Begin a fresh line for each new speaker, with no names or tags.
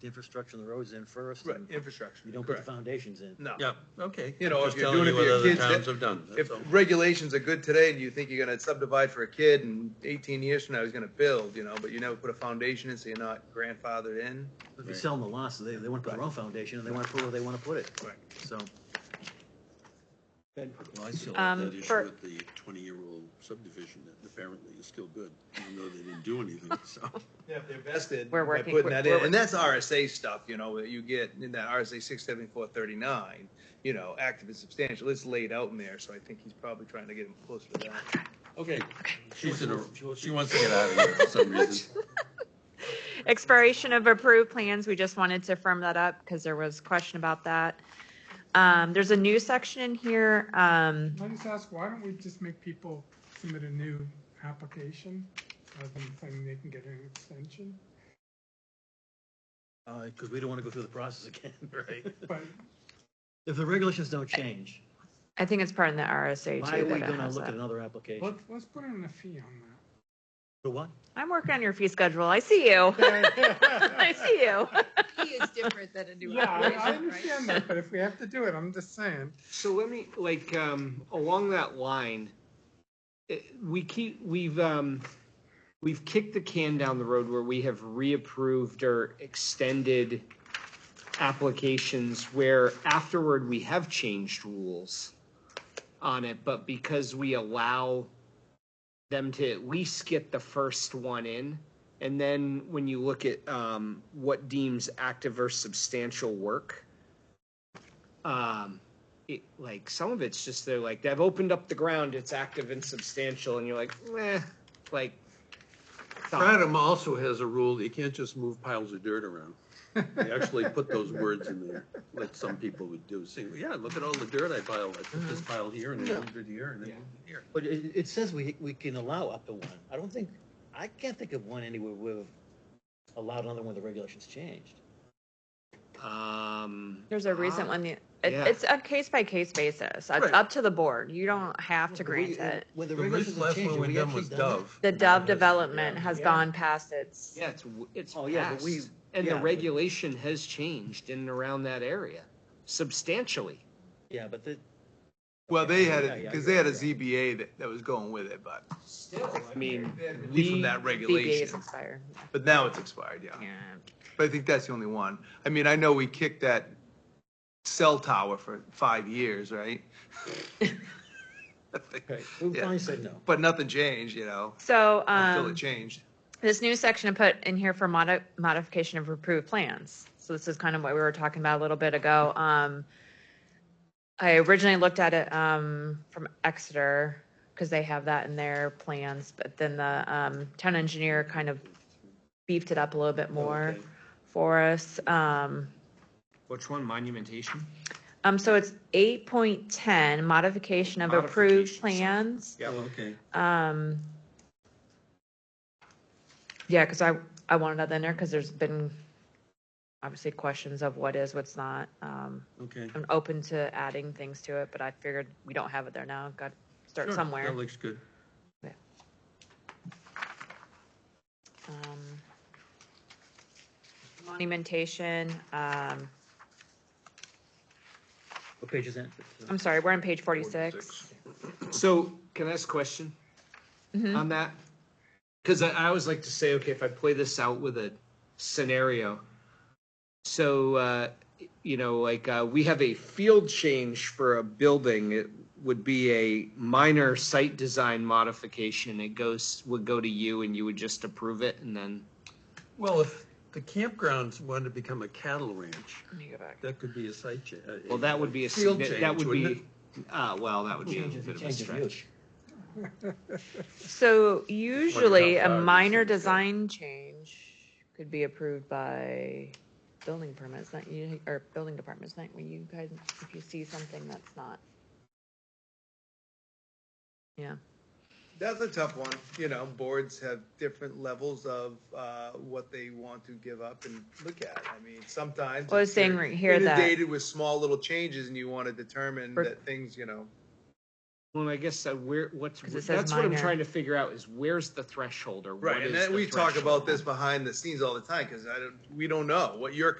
the infrastructure on the roads in first.
Right,
and
infrastructure.
You don't put the
Correct.
foundations in.
No.
Yeah, okay.
You know,
Just
if you're
telling
doing
you
it for your
what other
kids, that-
Towns have done,
If
that's all.
regulations are good today and you think you're gonna subdivide for a kid and eighteen years from now he's gonna build, you know, but you never put a foundation in, so you're not grandfathered in.
If you sell them the lots, they, they wanna put their own foundation and they wanna put where they wanna put it,
Right.
so.
Well, I still
Um,
have that issue
for-
with the twenty-year-old subdivision that apparently is still good, even though they didn't do anything, so.
Yeah, if they're vested.
We're
by
working-
Putting that
we're-
in, and that's RSA stuff, you know, that you get in that RSA six seventy-four thirty-nine, you know, active and substantial, it's laid out in there, so I think he's probably trying to get him closer to that.
Okay, she's in a, she wants to get out of here for some reason.
Expiration of approved plans, we just wanted to firm that up because there was question about that. Um, there's a new section in here, um,
Can I just ask, why don't we just make people submit a new application rather than saying they can get an extension?
Uh, cause we don't wanna go through the process again, right?
But
If the regulations don't change,
I think it's part of the RSA
why
too
are we
that it
gonna
has
look at
that.
another application?
let's, let's put in a fee on
For what?
I'm working on your fee schedule, I see you, I
that.
see you.
He is different than a new
Yeah, I I
application, right?
understand that, but if we have to do it, I'm just saying.
So let me, like, um, along that line, eh, we keep, we've, um, we've kicked the can down the road where we have reapproved or extended applications where afterward we have changed rules on it, but because we allow them to at least get the first one in. And then when you look at, um, what deems active or substantial work, um, it, like some of it's just they're like they've opened up the ground, it's active and substantial, and you're like, meh, like. stop.
Stratum also has a rule, that you can't just move piles of dirt around. They actually put those words in there, like some people would do, saying, yeah, look at all the dirt I piled, I put this pile here and then moved it here and then moved it here.
But it, it says we, we can allow up to one. I don't think, I can't think of one anywhere we've allowed another one, the regulations changed.
Um,
There's a recent
ah,
one, it-
Yeah.
it's a case by case basis, it's
Right.
up to the board, you don't have to grant it.
When the
The very
regulations
last
changed,
one
have we
we done
actually
was
done
Dove.
The Dove
Yeah.
development has
Yeah.
gone past its,
Yeah, it's w- it's
Oh, yeah, but we-
past, and
yeah,
the
but-
regulation has changed in and around that area substantially.
it? Yeah, but the,
Well, they had,
Yeah,
it
yeah,
because they had a
yeah.
ZBA that, that was going with it, but,
Still, I mean,
relief from
we-
that
BBA is
regulation,
expired,
but now it's expired, yeah.
yeah.
But I think that's the only one. I mean, I know we kicked that cell tower for five years, right?
okay, we
Yeah.
finally said no.
But nothing changed, you know,
So, um.
until it changed.
this new section I put in here for modi- modification of approved plans. So this is kind of what we were talking about a little bit ago. Um, I originally looked at it, um, from Exeter, because they have that in their plans, but then the, um, town engineer kind of beefed it up a little bit more
Okay.
for us. Um,
Which one? Monumentation.
um, so it's eight point ten, modification of approved plans.
Modifications. Yeah.
Oh, okay.
Um, yeah, because I, I wanted that in there because there's been obviously questions of what is, what's not. Um,
Okay.
I'm open to adding things to it, but I figured we don't have it there now. Got to start
Sure,
somewhere.
That looks good.
Um, monumentation. Um,
What page is that?
I'm sorry, we're on page 46.
So can I ask a question
Mhm.
on that? Because I, I always like to say, okay, if I play this out with a scenario, so uh, you know, like uh, we have a field change for a building. It would be a minor site design modification. It goes would go to you, and you would just approve it, and then
Well, if the campgrounds wanted to become a cattle ranch,
Let me go back.
that could be a site change.
well, that would be a
Field
signi-
change,
that would
wouldn't
be uh, well, that would be a
Change of-
bit of a
change of use.
stretch.
So usually a
outside,
minor
it's okay.
design change could be approved by building permits, not you, or building departments, not when you guys, if you see something that's not. Yeah,
That's a tough one. You know, boards have different levels of uh, what they want to give up and look at. I mean, sometimes.
Well, I was saying
you're
right here that-
Inundated with small little changes and you want to determine
For-
that things, you know,
Well, I guess uh, where what's
'Cause it says
that's what I'm
minor.
trying to figure out is where's the threshold or what
Right, and
is
then
the
we talk about
threshold?
this behind the scenes all the time because I don't, we don't know what your